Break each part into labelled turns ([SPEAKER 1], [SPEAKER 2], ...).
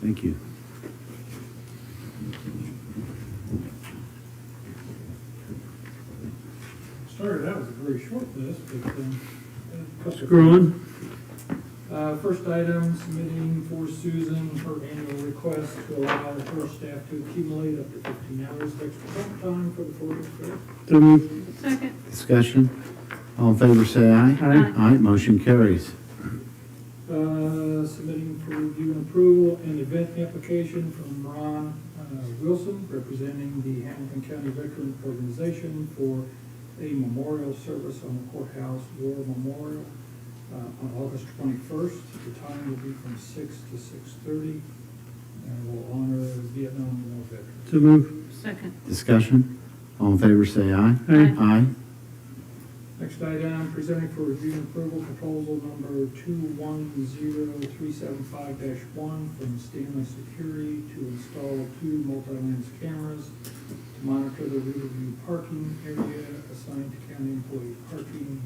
[SPEAKER 1] Thank you.
[SPEAKER 2] Sorry, that was a very short list, but, um. uh,
[SPEAKER 1] Screw on.
[SPEAKER 2] Uh, first item, submitting for Susan her annual request to allow her staff to accumulate up to fifteen hours of extra comp time for the four-year period.
[SPEAKER 1] So moved.
[SPEAKER 3] Second.
[SPEAKER 1] Discussion. All in favor, say aye.
[SPEAKER 3] Aye.
[SPEAKER 1] Aye, motion carries.
[SPEAKER 2] Uh, submitting for review and approval an event application from Ron uh, Wilson, representing the Hamilton County Veteran Organization for a memorial service on the courthouse war memorial uh, on August twenty-first. The time will be from six to six-thirty, and will honor Vietnam War veterans.
[SPEAKER 4] So move.
[SPEAKER 3] Second.
[SPEAKER 1] Discussion. All in favor, say aye.
[SPEAKER 3] Aye.
[SPEAKER 1] Aye.
[SPEAKER 2] Next item, presenting for review and approval, proposal number two-one-zero-three-seven-five one from Stanley Security to install two multi-lens cameras to monitor the Riverview parking area assigned to county employee parking.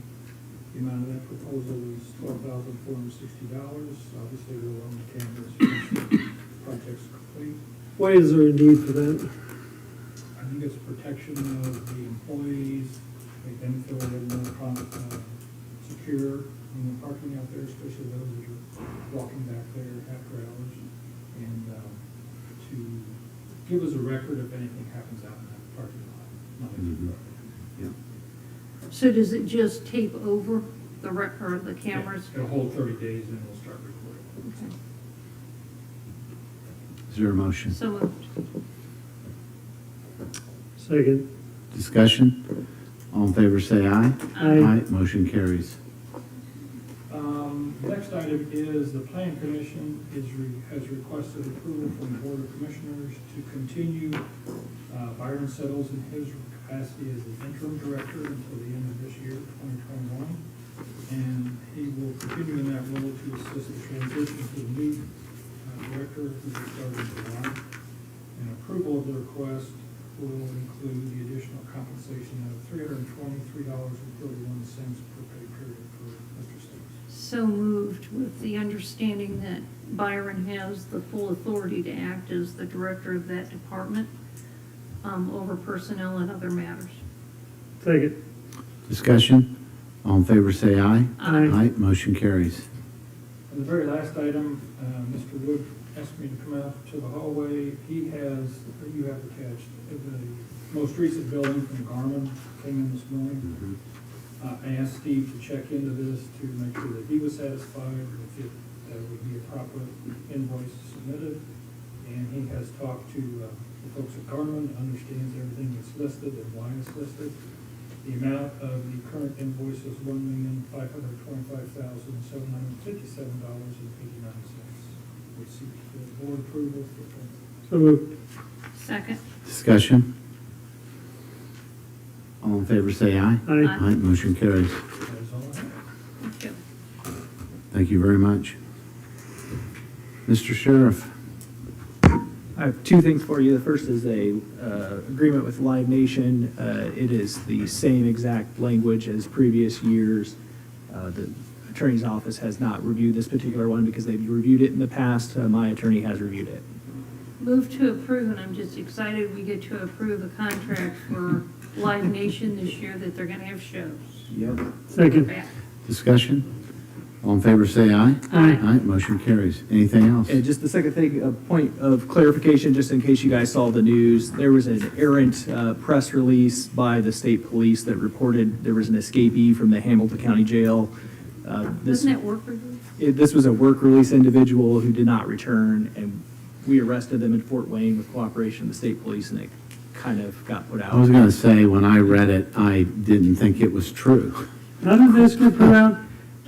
[SPEAKER 2] The amount of that proposal is twelve thousand four hundred and sixty dollars. Obviously, we'll own the cameras once the project's complete.
[SPEAKER 4] Why is there a need for that?
[SPEAKER 2] I think it's protection of the employees, make them feel they're more con- uh, secure in the parking out there, especially those that are walking back there after hours. And um, to give us a record if anything happens out in that parking lot. not in the
[SPEAKER 1] Mhm.
[SPEAKER 2] road.
[SPEAKER 1] Yep.
[SPEAKER 3] So does it just tape over the rec, or the cameras?
[SPEAKER 2] It'll hold thirty days and we'll start recording.
[SPEAKER 3] Okay.
[SPEAKER 1] Is there a motion?
[SPEAKER 3] So moved.
[SPEAKER 4] Second.
[SPEAKER 1] Discussion. All in favor, say aye.
[SPEAKER 4] Aye.
[SPEAKER 1] motion carries.
[SPEAKER 2] Um, Next item is the Plan Commission is, re- has requested approval from the Board of Commissioners to continue uh, Byron Settles in his capacity as the interim director until the end of this year, 2021. And he will continue in that role to assist the transition to the new uh, director who will start in July. And approval of the request will include the additional compensation of $323.31 per pay period for Mr. Settles.
[SPEAKER 3] So moved with the understanding that Byron has the full authority to act as the director of that department um, over personnel and other matters.
[SPEAKER 4] Second.
[SPEAKER 1] Discussion. All in favor, say aye.
[SPEAKER 4] Aye.
[SPEAKER 3] Uh,
[SPEAKER 1] motion carries.
[SPEAKER 2] And the very last item, uh, Mr. Wood asked me to come out to the hallway. He has, you have attached, the most recent building from Garmin came in this morning. Uh, I asked Steve to check into this to make sure that he was satisfied, and if it uh, would be a proper invoice submitted. And he has talked to uh, the folks at Garmin, understands everything that's listed and why it's listed. The amount of the current invoice is one million, five hundred twenty-five thousand, seven hundred fifty-seven dollars and eighty-nine cents. We seek the board approval for that.
[SPEAKER 4] So move.
[SPEAKER 3] Second.
[SPEAKER 1] Discussion. All in favor, say aye.
[SPEAKER 4] Aye.
[SPEAKER 1] motion carries.
[SPEAKER 2] That is all I have.
[SPEAKER 3] Thank you.
[SPEAKER 1] Thank you very much. Mr. Sheriff,
[SPEAKER 5] I have two things for you. The first is a uh, agreement with Live Nation. Uh, It is the same exact language as previous years. Uh, The attorney's office has not reviewed this particular one because they've reviewed it in the past. Uh, My attorney has reviewed it.
[SPEAKER 3] Move to approve, and I'm just excited we get to approve a contract for Live Nation this year that they're gonna have shows.
[SPEAKER 4] Second.
[SPEAKER 3] Back.
[SPEAKER 1] discussion. All in favor, say aye.
[SPEAKER 3] Aye.
[SPEAKER 1] motion carries. Anything else?
[SPEAKER 5] And just the second thing, a point of clarification, just in case you guys saw the news, there was an errant uh, press release by the state police that reported there was an escapee from the Hamilton County Jail. Uh, this-
[SPEAKER 3] Doesn't that work for you?
[SPEAKER 5] it- this was a work release individual who did not return, and we arrested them in Fort Wayne with cooperation of the state police, and it kind of got put
[SPEAKER 1] I was
[SPEAKER 5] out.
[SPEAKER 1] gonna say, when I read it, I didn't think it was true.
[SPEAKER 4] How did this get put out?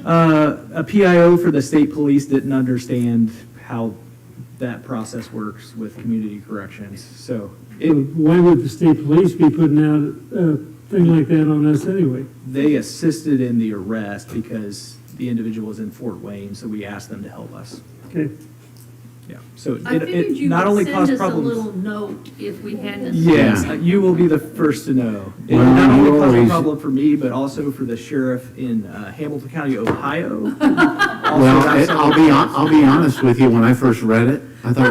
[SPEAKER 5] Uh, a PIO for the state police didn't understand how that process works with community corrections, so it,
[SPEAKER 4] Why would the state police be putting out a thing like that on us anyway?
[SPEAKER 5] they assisted in the arrest because the individual was in Fort Wayne, so we asked them to help us.
[SPEAKER 4] Okay.
[SPEAKER 5] Yeah, so it-
[SPEAKER 3] I figured
[SPEAKER 5] it
[SPEAKER 3] you
[SPEAKER 5] not
[SPEAKER 3] would
[SPEAKER 5] only
[SPEAKER 3] send
[SPEAKER 5] caused
[SPEAKER 3] us a
[SPEAKER 5] problems.
[SPEAKER 3] little note if we hadn't.
[SPEAKER 5] Yes,
[SPEAKER 1] Yeah.
[SPEAKER 5] uh, you will be the first to know. It
[SPEAKER 1] Well,
[SPEAKER 5] not
[SPEAKER 1] you
[SPEAKER 5] only caused
[SPEAKER 1] always-
[SPEAKER 5] a problem for me, but also for the sheriff in uh, Hamilton County, Ohio. Also
[SPEAKER 1] Well,
[SPEAKER 5] got
[SPEAKER 1] it-
[SPEAKER 5] some-
[SPEAKER 1] I'll be, hon- I'll be honest with you, when I first read it, I thought